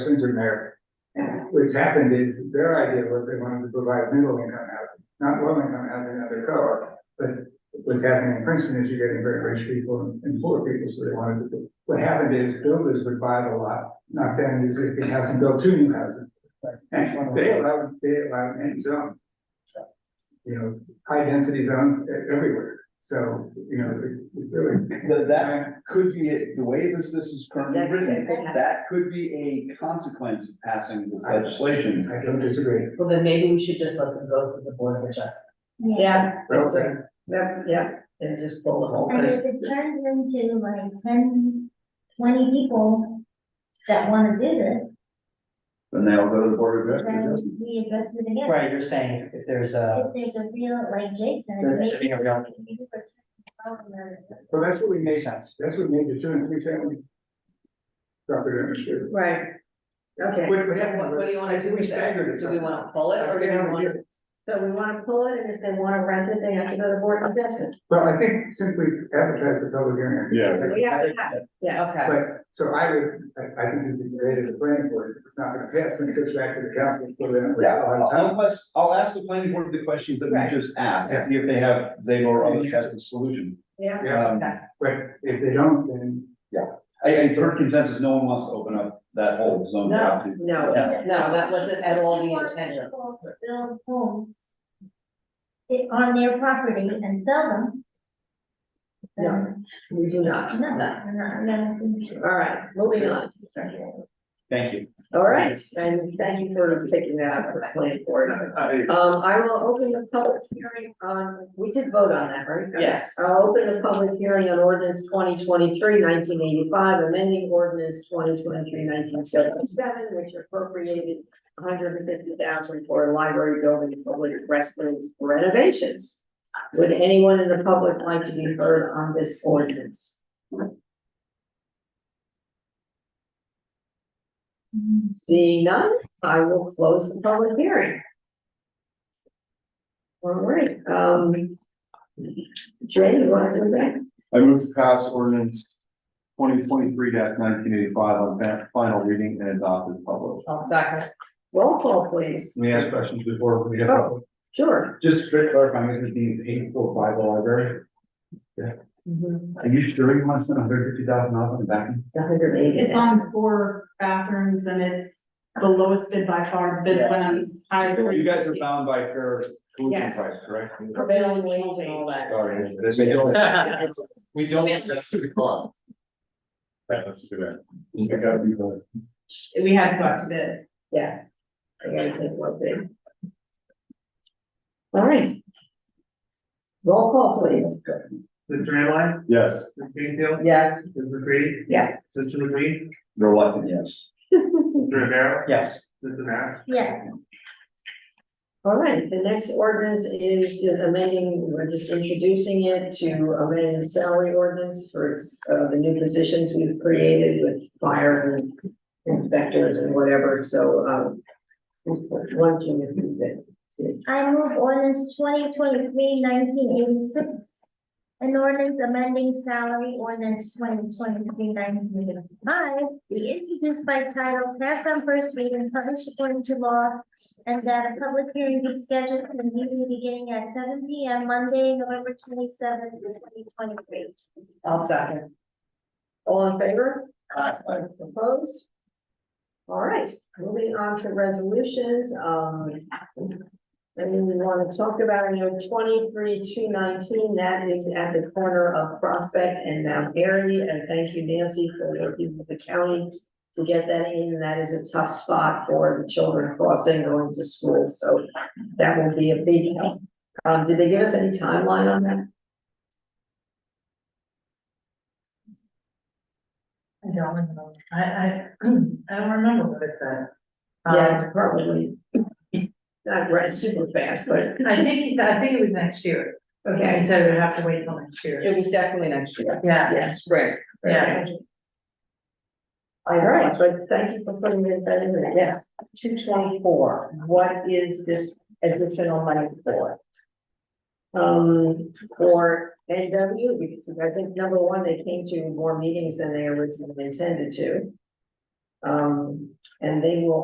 Winter Mayor. Which happened is their idea was they wanted to provide middle income housing, not low income housing under code. But what's happening in Princeton is you're getting very rich people and- and poor people, so they wanted to. do- What happened is builders would buy the lot, knock down the existing house and build two new houses. And they allowed, they allowed any zone. You know, high density zones e-, everywhere, so, you know, it- it's really. That, that could be, it. the way this, this is currently That- written, that- that could be a consequence of passing this legislation. I don't disagree. Well, then maybe we should just let them go through the board of adjustment. Yeah. Well that's it. said. Yep, yep, and just pull the whole And thing. if it turns into like 10, 20 people that wanna do this, Then they'll go to the board of adjustment. then we address it again. Right, you're saying if there's a, If there's a real, like Jason. There needs to be a real- maybe we're talking about it. Well, that's what we made, makes sense. that's what made the two and three family. Property owners do. Right. Okay. What- what So happened What, was what do you wanna do we with staggered that? it Do we wanna somehow. pull it or do we wanna? So we wanna pull it, and if they wanna rent it, they have to go to board of adjustment. Well, I think simply advertise the public hearing. Yeah. We have to have, it. yeah. Okay, But, so I would, I, I think it'd be great as a planning board, it's not gonna pass when it goes back to the council, so then we Yeah, have a lot of time. unless, I'll ask the planning board the questions that Right. we just asked, and see if they have, they or others have a solution. Yeah. Yeah, Um, but if they don't, then I, I've heard consensus, no one wants to open up that whole zone. No, no, Yeah. no, that wasn't at all the People intent. people to Build homes. i- on their property and sell them. then we do not. No, No. I'm not, I'm not. All right, moving on. Thank you. All right, and thank you for taking that out for the planning board. Um, I will open the public hearing on, we did vote on that, right? Yes. I'll open the public hearing on ordinance 2023-1985, amending ordinance 2023-1977, which appropriated hundred and fifty thousand for library building and public restrooms renovations. Would anyone in the public like to be heard on this ordinance? Seeing none, I will close the public hearing. All right, um. Jay, you wanna do that? I move to pass ordinance twenty twenty-three nineteen eighty-five on fa- final reading and adopted published. I'll second. Roll call, please. Let me ask questions before we get. Oh. Sure. Just to clarify, this is being paid for by the library. Mm-hmm. Are you sure you want to spend hundred fifty thousand dollars on the back? end? The hundred eighty. It's on four bathrooms and it's the lowest bid by far, bid went on as high as. So You guys are 350. bound by fair solution Yes. price, correct? Prevailing wage and all that. Sorry, this is- We don't, that's too far. That's too bad. I gotta be the- We had to go out to bid. Yeah. I gotta take one thing. All right. Roll call, please. Mr. Amline, Yes. Mr. Greenfield, Yes. Mr. McCready, Yes. Mr. McGree, Reluctant, yes. Mr. Rivera, Yes. Mr. Matt. Yeah, All right, the next ordinance is amending, we're just introducing it to amend the salary ordinance for its, uh, the new positions we've created with fire and inspectors and whatever, so, um, one, two, and three, that- I move ordinance 2023-1986, An ordinance amending salary ordinance 2023-1985, be introduced by title, passed on first reading, published according to law. And that a public hearing be scheduled for the meeting beginning at seven P M, Monday, November twenty seventh, twenty twenty three. I'll second. All in favor? Aye. Opposed? All right, moving on to resolutions, um. And we want to talk about, you know, twenty-three, two nineteen, that is at the corner of Prospect and Mount Airy, and thank you Nancy for the piece of the county. To get that in, that is a tough spot for the children crossing going to school, so that will be a big help. Um, did they give us any timeline on that? I don't remember, I, I, I don't remember what it said. Yeah, Um, probably. Not right super fast, but, I think he said, I think it was next year, he okay, said it would have to wait till next year. it was definitely next year. Yeah. spring. Yeah. All right, but thank you for putting it that in there, yeah. Two twenty-four, what is this additional money for? Um, for NW, because I think number one, they came to more meetings than they originally intended to. Um, and they will